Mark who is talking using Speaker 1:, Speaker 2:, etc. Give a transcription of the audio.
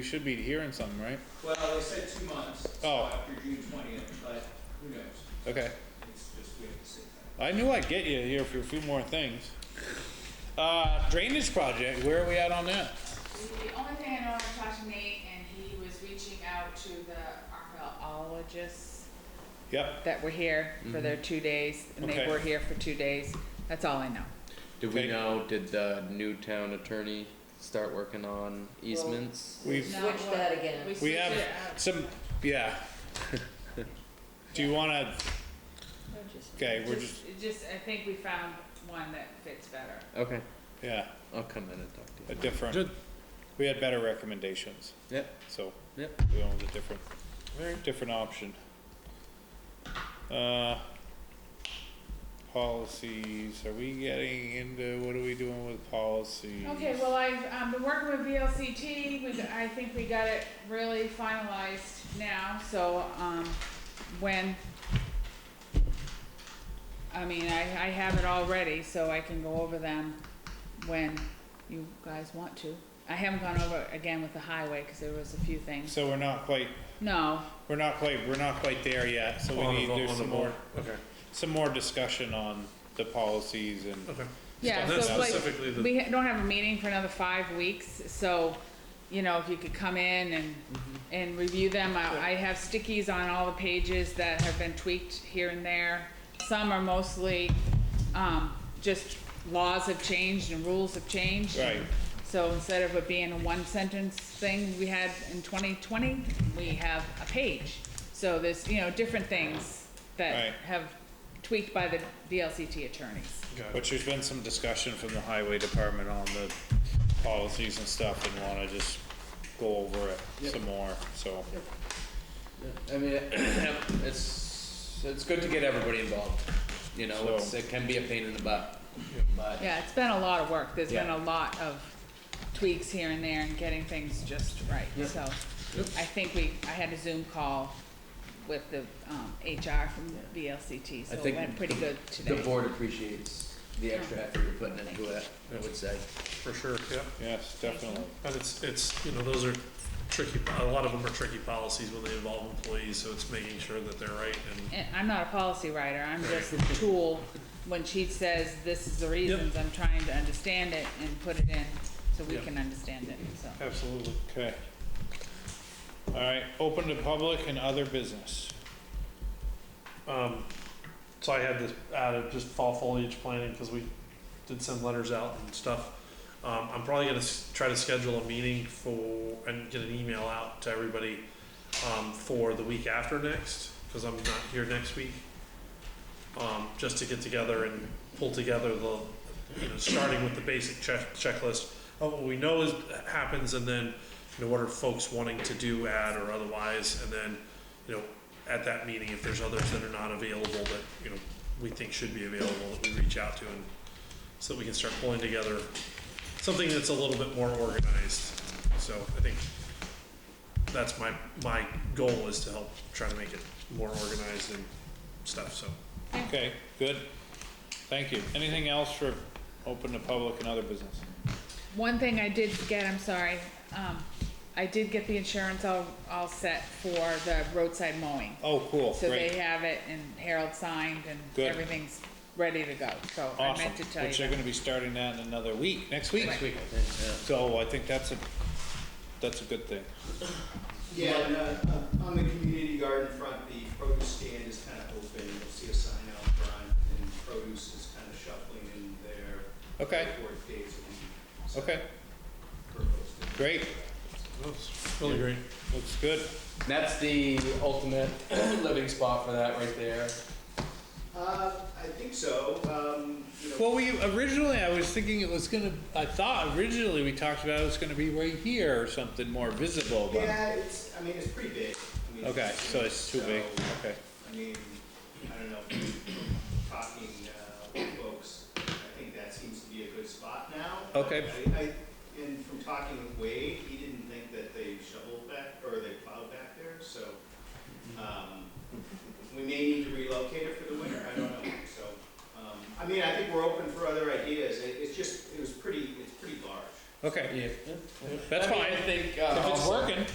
Speaker 1: We should be hearing something, right?
Speaker 2: Well, they said two months. so
Speaker 1: Oh.
Speaker 2: After June twentieth, but who knows?
Speaker 1: Okay.
Speaker 2: It's just, we have to see.
Speaker 1: I knew I'd get you here for a few more things. Uh, drainage project, where are we at on that?
Speaker 3: The only thing I know, I talked to Nate, and he was reaching out to the archaeologists
Speaker 1: Yep.
Speaker 3: that were here for their two days, and they
Speaker 1: Mm-hmm. Okay.
Speaker 3: were here for two days. That's all I know.
Speaker 4: Did we
Speaker 1: Okay.
Speaker 4: know, did the new town attorney start working on easements?
Speaker 1: We've,
Speaker 5: Switch that again.
Speaker 1: we have some, yeah. Do you wanna, okay, we're just,
Speaker 3: Just, I think we found one that fits better.
Speaker 4: Okay,
Speaker 1: yeah,
Speaker 4: I'll come in and talk to
Speaker 1: a
Speaker 4: you.
Speaker 1: different, we had better recommendations,
Speaker 4: Yep,
Speaker 1: so
Speaker 4: yep.
Speaker 1: we went with a different, very different option. Uh, policies, are we getting into, what are we doing with policies?
Speaker 3: Okay, well, I've, um, been working with VLCT, we, I think we got it really finalized now, so, um, when, I mean, I, I have it all ready, so I can go over them when you guys want to. I haven't gone over it again with the highway, cause there was a few things,
Speaker 1: So we're not quite
Speaker 3: no,
Speaker 1: We're not quite, we're not quite there yet, so we need, there's some more,
Speaker 6: Okay,
Speaker 1: some more discussion on the policies and,
Speaker 6: okay.
Speaker 3: yeah,
Speaker 6: That's
Speaker 3: so like,
Speaker 6: specifically the-
Speaker 3: we ha- don't have a meeting for another five weeks, so, you know, if you could come in and, and review them, I, I have stickies on all the pages that have been tweaked here and there. Some are mostly, um, just laws have changed and rules have changed.
Speaker 1: Right.
Speaker 3: So instead of it being a one sentence thing we had in twenty twenty, we have a page. So there's, you know, different things
Speaker 1: Right.
Speaker 3: that have tweaked by the VLCT attorneys.
Speaker 1: which there's been some discussion from the highway department on the policies and stuff and wanna just go over it some more, so.
Speaker 4: I mean, it's, it's good to get everybody involved, you know, it's,
Speaker 1: So-
Speaker 4: it can be a pain in the butt, but,
Speaker 3: Yeah, it's been a lot of work. There's been
Speaker 4: Yeah.
Speaker 3: a lot of tweaks here and there and getting things just right, so. I think we, I had a Zoom call with the, um, HR from VLCT, so
Speaker 4: I
Speaker 3: it
Speaker 4: think
Speaker 3: went pretty good
Speaker 4: the
Speaker 3: today.
Speaker 4: board appreciates the extra effort you're putting into it, I would say.
Speaker 6: For sure, yeah.
Speaker 1: Yes, definitely,
Speaker 6: And it's, it's, you know, those are tricky, po- a lot of them are tricky policies when they involve employees, so it's making sure that they're right and,
Speaker 3: And I'm not a policy writer, I'm just a tool. When she says this is the reasons, I'm trying to understand it and put it in so we
Speaker 6: Yeah.
Speaker 3: can understand it, so.
Speaker 1: absolutely, okay. Alright, open to public and other business.
Speaker 6: um, so I had this added, just fall foliage planting, because we did send letters out and stuff. Um, I'm probably gonna s- try to schedule a meeting for, and get an email out to everybody, um, for the week after next, because I'm not here next week. Um, just to get together and pull together the, you know, starting with the basic check, checklist of what we know is, happens, and then, you know, what are folks wanting to do, add or otherwise, and then, you know, at that meeting, if there's others that are not available that, you know, we think should be available, that we reach out to and so that we can start pulling together something that's a little bit more organized. So I think that's my, my goal is to help try to make it more organized and stuff, so.
Speaker 1: Okay, good, thank you. Anything else for open to public and other business?
Speaker 3: One thing I did get, I'm sorry, um, I did get the insurance all, all set for the roadside mowing.
Speaker 1: Oh, cool,
Speaker 3: So they
Speaker 1: great,
Speaker 3: have it and Harold signed and
Speaker 1: Good.
Speaker 3: everything's ready to go, so I
Speaker 1: awesome,
Speaker 3: meant to tell you
Speaker 1: which they're
Speaker 3: that.
Speaker 1: gonna be starting that in another week, next week.
Speaker 4: Next week, I think,
Speaker 1: So I think that's a, that's a good thing.
Speaker 2: Yeah, and, uh, on the community garden front, the produce stand is kind of open, you'll see a sign out front, and produce is kind of shuffling in there.
Speaker 1: Okay.
Speaker 2: Four days a week. so
Speaker 1: Okay,
Speaker 2: proposed.
Speaker 1: great,
Speaker 6: Really great.
Speaker 1: looks good.
Speaker 4: yeah. That's the ultimate living spot for that right there.
Speaker 2: Uh, I think so, um, you know.
Speaker 1: Well, we, originally, I was thinking it was gonna, I thought originally we talked about it was gonna be right here or something more visible, but.
Speaker 2: Yeah, it's, I mean, it's pretty big. I mean,
Speaker 1: Okay, so it's too big,
Speaker 2: so,
Speaker 1: okay.
Speaker 2: I mean, I don't know, from talking uh, with folks, I think that seems to be a good spot now.
Speaker 1: Okay.
Speaker 2: I, I- and from talking with Wade, he didn't think that they shoveled back, or they plowed back there, so, um, we may need to relocate it for the winter, I don't know, so. um, I mean, I think we're open for other ideas, It- it's just, it was pretty, it's pretty large.
Speaker 1: Okay,
Speaker 4: Yeah.
Speaker 1: That's
Speaker 4: I mean,
Speaker 1: fine.
Speaker 4: I think,
Speaker 1: if
Speaker 4: uh,
Speaker 1: it's
Speaker 4: also-
Speaker 1: working.